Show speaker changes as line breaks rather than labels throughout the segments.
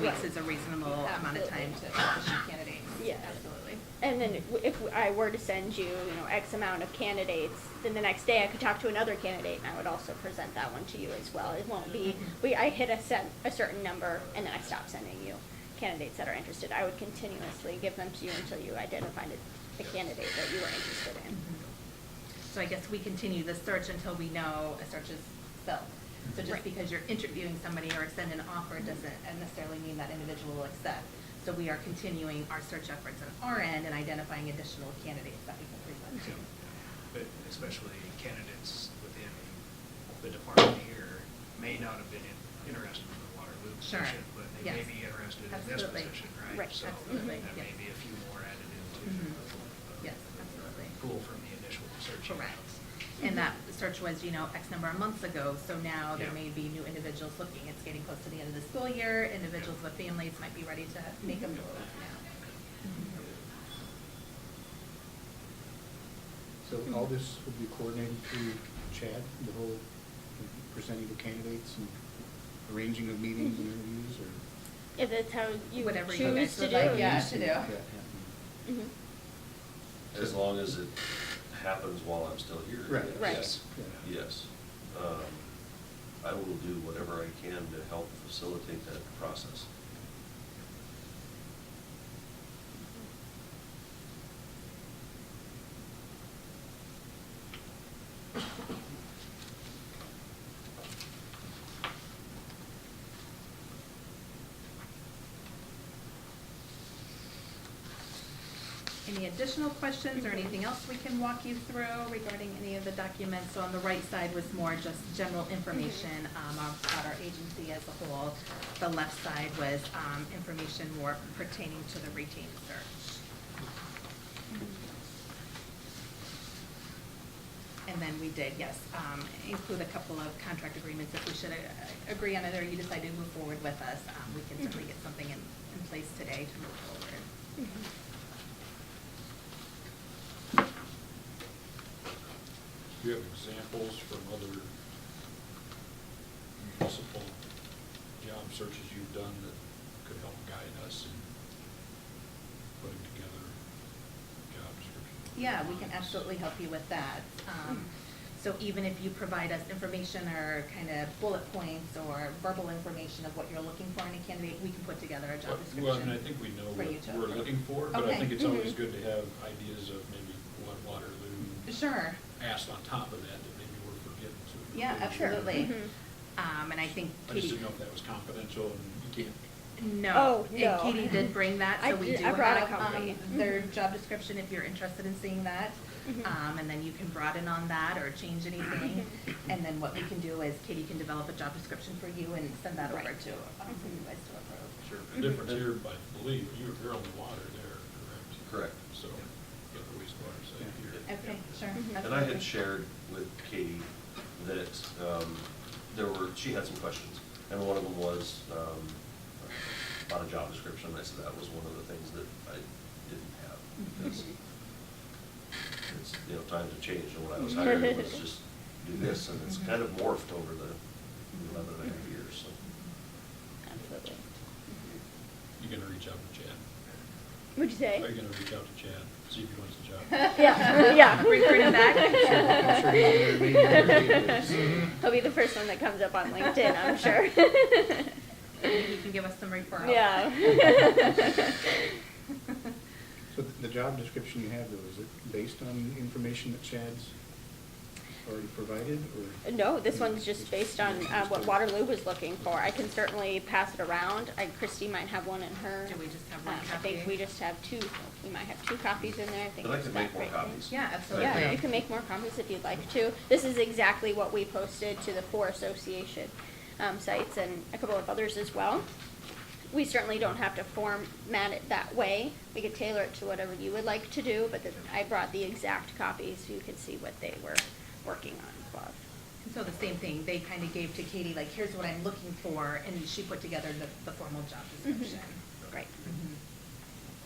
weeks is a reasonable amount of time to issue candidates.
Yeah.
Absolutely.
And then if I were to send you, you know, X amount of candidates, then the next day I could talk to another candidate and I would also present that one to you as well. It won't be,
Mm-hmm.
we, I hit a set, a certain number and then I stop sending you candidates that are interested. I would continuously give them to you until you identified a- a candidate that you were interested in.
Mm-hmm. So I guess we continue the search until we know a search is filled. So just
Right.
because you're interviewing somebody or send an offer doesn't necessarily mean that individual will accept. So we are continuing our search efforts on our end and identifying additional candidates that we can present to.
But especially candidates within the department here may not have been in- interested in the Waterloo
Sure.
position, but they may
Yes.
be interested in this
Absolutely.
position, right?
Right.
So
Absolutely.
that may
Yes.
be a few more added into
Mhm.
the-
Yes, absolutely.
the pool from the initial search. you
Correct.
have.
And that search was, you know, X number of months ago, so now there
Yeah.
may be new individuals looking. It's getting close to the end of the school year, individuals with families might be ready to make a move
Mm-hmm.
now.
So all this will be coordinated through Chad, the whole presenting of candidates and arranging of meetings and interviews or?
If that's how you
Whatever you
choose
guys
to
would
do. Mm-hmm.
like,
it.
yeah, to do. Mm-hmm.
Yeah, yeah.
Mhm.
As long as it happens while I'm still here.
Right.
yes.
Right.
Yes.
Yeah.
Yes. Um, I will do whatever I can to help facilitate that process.
Any additional questions or anything else we can walk you through regarding any of the documents? So on the right side was more just general information
Mm-hmm.
um, about our agency as a whole. The left side was um, information more pertaining to the retained search. And then we did, yes, um, include a couple of contract agreements if we should uh, agree on it or you decide to move forward with us. um, We can certainly get something in, in place today to move forward.
Mhm.
Do you have examples from other municipal job searches you've done that could help guide us in putting together job descriptions?
Yeah, we can absolutely help you with that. Um, So even if you provide us information or kind of bullet points or verbal information of what you're looking for in a candidate, we can put together a job description.
Well, I mean, I think we know
for you to-
what we're looking for, but I
Okay. mm-hmm.
think it's always
Mhm.
good to have ideas of maybe what Waterloo
Sure,
asked on top of that that maybe we're forgetting. so we can
yeah,
maybe-
absolutely.
Mhm.
Um, and I think
I just
Katie,
didn't know if that was confidential and you can't
no,
Oh,
and
no.
Katie did bring that,
I
so we
did-
do
I brought a
have, um,
copy.
their
Mhm.
job description if you're interested in seeing that.
Mhm.
Um, and then you can broaden on that or change anything. And then what we can do is Katie can develop a job description for you and send that over to, um, for you guys to approve.
Sure, the difference here, I believe, you're, you're on the water there,
Correct.
correct? So, you have the wastewater side here.
Okay, sure.
Mhm.
And I
absolutely.
had shared with Katie that um, there were, she had some questions, and one of them was um, about a job description. I said that was one of the things that I didn't have.
Mm-hmm.
because It's, you know, times have changed, and when I was hired, it was just do this, and it's kind of morphed over the eleven and a half years, so.
Mm-hmm.
Absolutely.
You gonna reach out to Chad?
What'd you say?
Are you gonna reach out to Chad, see if he wants the job?
Yeah, yeah.
Recruit him
I'm sure he's one of their main recruiters.
He'll be the first one that comes up on LinkedIn, I'm sure.
Maybe you can give us some referrals.
Yeah.
So th- the job description you have though, is it based on information that Chad's already provided or?
No, this one's just based on uh, what
Just-
Waterloo was looking for. I can certainly pass it around. I- Christie might have one in her.
Do we just have one
Um, I think
copy?
we just have two, we might have two copies in there, I think.
I'd like
it's
to make
that
more
right there.
copies.
Yeah, absolutely.
Yeah,
Yeah.
you can make more comments if you'd like to. This is exactly what we posted to the four association um, sites and a couple of others as well. We certainly don't have to format it that way. We could tailor it to whatever you would like to do, but the- I brought the exact copies so you could see what they were working on above.
And So the same thing, they kind of gave to Katie, like, here's what I'm looking for, and she put together the, the formal job description.
Mm-hmm. Right.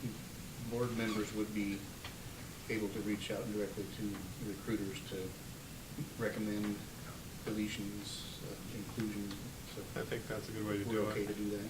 Mhm.
Board members would be able to reach out directly to recruiters to recommend deletions, uh, inclusions. so
I think that's a good way to do
We're okay
it.
to do that?